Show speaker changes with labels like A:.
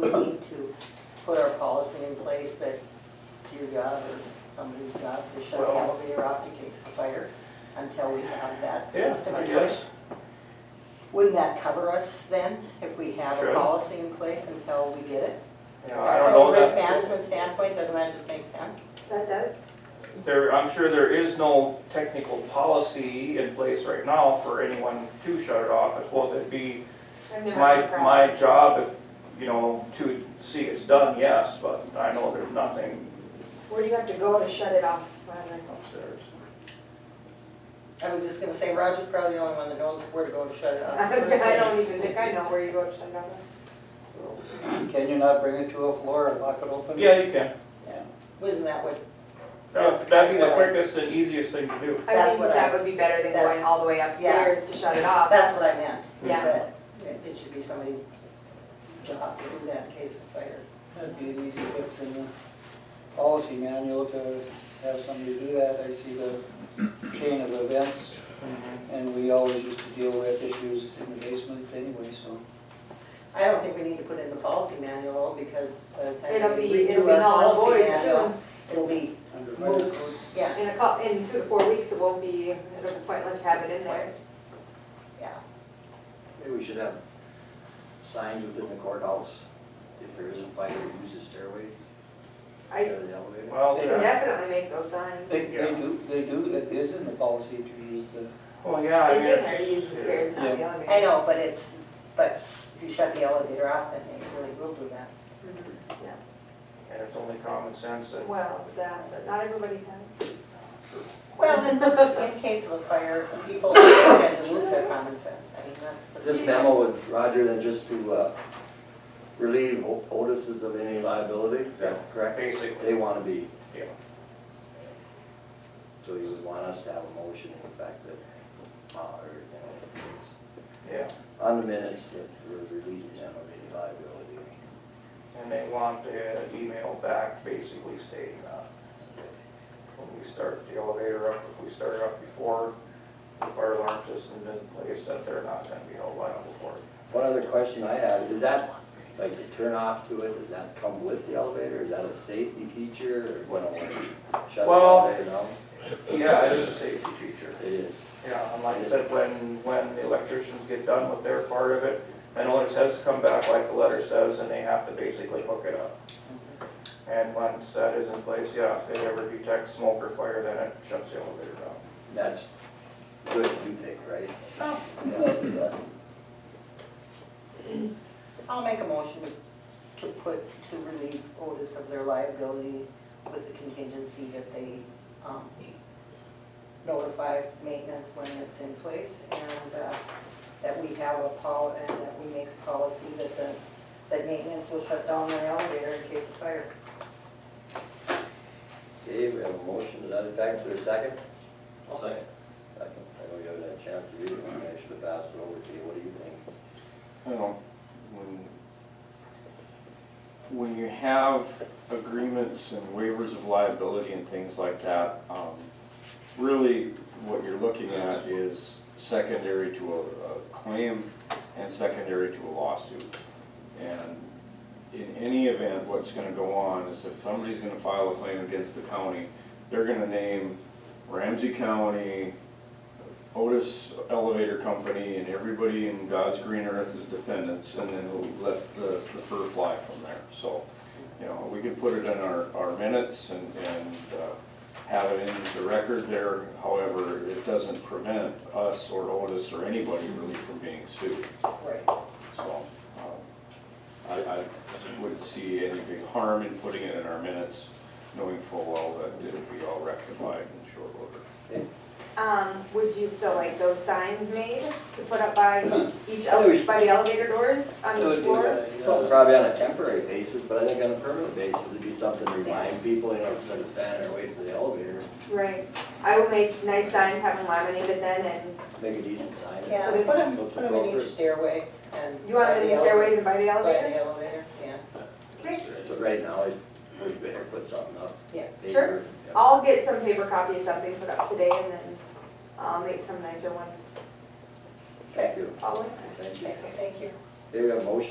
A: we need to put our policy in place that your job or somebody's job to shut the
B: Well-
A: elevator off in case of fire until we have that
B: Yeah,
A: system
B: I
A: in place?
B: guess.
A: Wouldn't that cover us then, if we have a
B: Sure.
A: policy in place until we get it?
B: You know, I don't know
A: From a risk
B: that,
A: management standpoint, doesn't that just make sense?
C: That does,
B: there, I'm sure there is no technical policy in place right now for anyone to shut it off. I suppose it'd be
C: I've never
B: my,
C: heard of that.
B: my job, if, you know, to see it's done, yes, but I know there's nothing
C: Where do you have to go to shut it off? rather than-
B: upstairs.
A: I was just gonna say, Roger's probably the only one that knows where to go to shut it off.
C: I was gonna- I don't even think I know where you go to shut it off.
D: Can you not bring it to a floor and lock it open?
B: Yeah, you can.
A: Isn't that what,
B: That- That'd be the quickest and easiest thing to do.
C: I
A: That's
C: think
A: what
C: that
A: I-
C: would be better than
A: that's-
C: going all the way upstairs to shut it off.
A: that's what I meant. is
C: Yeah.
A: that It it should be somebody's job to do that in case of fire.
D: That'd be an easy fix in the policy manual to have somebody do that. I see the chain of events, and we always used to deal with issues in the basement anyway, so.
A: I don't think we need to put in the policy manual because by the time
C: It'll
A: we
C: be,
A: redo
C: it'll be
A: our
C: null and
A: policy
C: void
A: manual,
C: soon.
A: It'll be
D: under fire-
A: moved, yeah,
C: In a cou, in two to four weeks, it won't be, it'll be pointless to have it in there.
A: yeah.
E: Maybe we should have signs within the courthouse, if there isn't fire, use the stairway,
C: I
E: or the elevator.
B: Well,
C: can
B: yeah,
C: definitely make those signs.
D: They, they do, they do, it is in the policy to use the,
B: well, yeah, I
C: It's
B: mean,
C: in there to use the
B: it's-
C: stairs, not the elevator.
A: I know, but it's, but if you shut the elevator off, then they really will do that.
C: Mhm.
B: and it's only common sense that
C: Well, that, but not everybody does.
A: Well, in, in case of a fire, people tend to lose their common sense, I mean, that's.
E: This memo with Roger, then just to uh, relieve O- Otis's of any liability, is that correct? They
B: basically,
E: want to be.
B: Yeah.
E: So you would want us to have a motion in fact that, uh, or, you
B: yeah.
E: know, on the minutes that we're relieving them of any liability.
B: And they want the email back basically stating that when we start the elevator up, if we start it up before the fire alarm system is in place, that they're not gonna be held liable for it.
E: One other question I have, is that, like, the turn off to it, does that come with the elevator? Is that a safety feature, or what, shuts the
B: Well-
E: elevator down?
B: Yeah, it is a safety feature.
E: It is.
B: Yeah, and like I said, when, when the electricians get done with their part of it, then all it says to come back like the letter says, and they have to basically hook it up. And once that is in place, yeah, if it ever detects smoke or fire, then it shuts the elevator down.
E: That's good, you think, right? Yeah,
A: I'll make a motion to, to put, to relieve Otis of their liability with the contingency that they, um, notify maintenance when it's in place and, uh, that we have a pol, and that we make a policy that the, that maintenance will shut down their elevator in case of fire.
E: Okay, we have a motion to that effect, for a second?
D: I'll
E: second. Second, I know you haven't had a chance to read it, I should have passed it over to you, what do you think?
F: Well, when, when you have agreements and waivers of liability and things like that, um, really what you're looking at is secondary to a, a claim and secondary to a lawsuit. And in any event, what's gonna go on is if somebody's gonna file a claim against the county, they're gonna name Ramsey County, Otis Elevator Company and everybody in God's green earth is defendants, and then we'll let the, the fur fly from there. So, you know, we could put it in our, our minutes and, and uh, have it in the record there. However, it doesn't prevent us or Otis or anybody really from being sued.
A: Right.
F: So, um, I, I wouldn't see any big harm in putting it in our minutes, knowing full well that it'll be all rectified in short order.
C: Um, would you still like those signs made to put up by each, ele-
E: Always.
C: by the elevator doors on
D: It
C: each
D: would be
C: floor?
D: that, you know,
E: So it's probably on a temporary basis, but I think on a permanent basis, it'd be something to remind people, you know, instead of standing there waiting for the elevator,
C: Right. I will make nice signs, have them laminated then, and
E: make a decent sign.
A: Yeah, put them, put 'em in each stairway and.
C: you want them in the stairways and by
A: By
C: the
A: the
C: elevator?
A: elevator, yeah.
C: Okay.
E: But right now, it- we better put something up.
A: Yeah,
C: sure.
E: paper, yeah.
C: I'll get some paper copy of something put up today and then I'll make some nicer ones
E: Thank you,
C: following.
E: thank you.
A: Okay, Thank you.
E: Okay, we have a motion